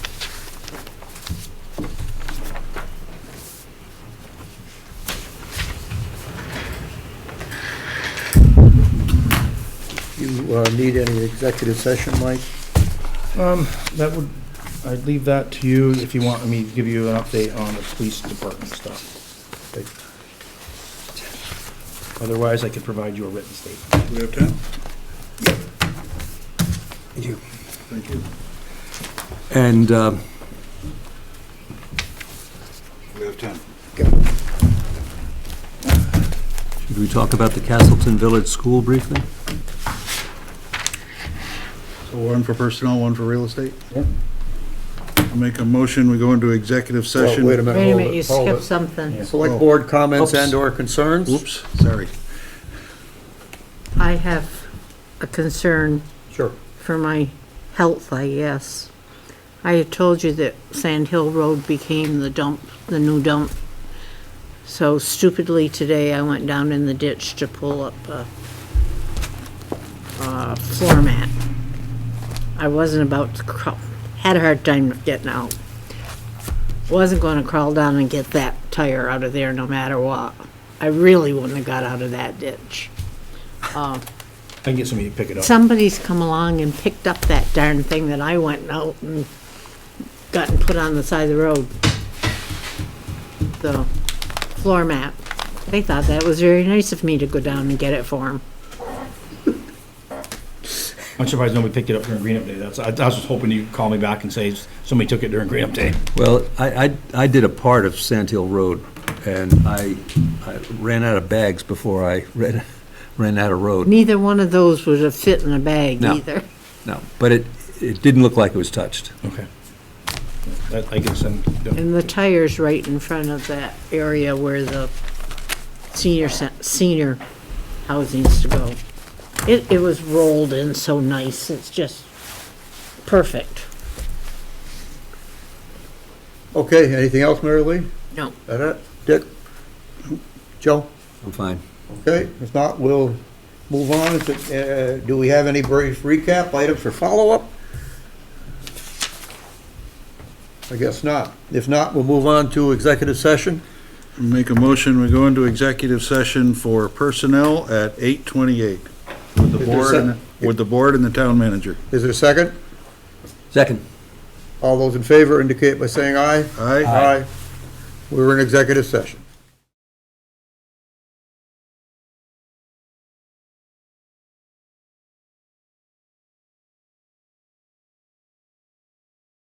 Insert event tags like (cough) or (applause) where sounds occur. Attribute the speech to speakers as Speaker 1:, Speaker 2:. Speaker 1: uh, need any executive session, Mike?
Speaker 2: Um, that would, I'd leave that to you if you want me to give you an update on the police department stuff.
Speaker 1: Okay.
Speaker 2: Otherwise, I could provide you a written statement.
Speaker 3: Do we have time?
Speaker 1: You.
Speaker 3: Thank you. uh,
Speaker 4: And um,
Speaker 3: We have time.
Speaker 4: should we talk about the Castleton Village School briefly?
Speaker 3: So one for personnel, one for real estate? I'll Make a motion, we go into executive session.
Speaker 1: Wait a minute,
Speaker 5: Wait a
Speaker 1: hold
Speaker 5: minute, you
Speaker 1: it, hold
Speaker 5: skipped
Speaker 1: it.
Speaker 5: something.
Speaker 1: Select board comments
Speaker 4: Oops.
Speaker 1: and/or concerns?
Speaker 3: Oops, sorry.
Speaker 5: I have a concern
Speaker 1: Sure.
Speaker 5: for my health, I guess. I had told you that Sand Hill Road became the dump, the new dump. So stupidly today, I went down in the ditch to pull up a, a floor mat. I wasn't about to crawl, had a hard time getting out. Wasn't gonna crawl down and get that tire out of there no matter what. I really wouldn't have got out of that ditch.
Speaker 2: I can get somebody to pick it up.
Speaker 5: Somebody's come along and picked up that darn thing that I went out and got and put on the side of the road. The floor mat. They thought that was very nice of me to go down and get it for them.
Speaker 2: I'm surprised nobody picked it up during Green Up Day. That's, I I was just hoping you'd call me back and say somebody took it during Green Up Day.
Speaker 4: Well, I, I, I did a part of Sand Hill Road, and I, I ran out of bags before I (laughs) ran, ran out of road.
Speaker 5: Neither one of those would have fit in a bag
Speaker 4: No.
Speaker 5: either.
Speaker 4: No, but it, it didn't look like it was touched.
Speaker 2: Okay. That, I can send,
Speaker 5: And the tire's right in front of that area where the senior, cen- senior housings to go. It, it was rolled in so nice, it's just perfect.
Speaker 1: Okay, anything else, Mary Lee?
Speaker 5: No.
Speaker 1: That it? Dick? Joe?
Speaker 4: I'm fine.
Speaker 1: Okay, if not, we'll move on. If it, uh, Do we have any brief recap items for follow-up? I guess not. If not, we'll move on to executive session.
Speaker 3: Make a motion, we go into executive session for personnel at 8:28 with the
Speaker 1: Is there a
Speaker 3: board, and-
Speaker 1: sec-
Speaker 3: with the board and the town manager.
Speaker 1: Is there a second?
Speaker 4: Second.
Speaker 1: All those in favor indicate by saying aye.
Speaker 3: Aye?
Speaker 1: Aye. We're in executive session.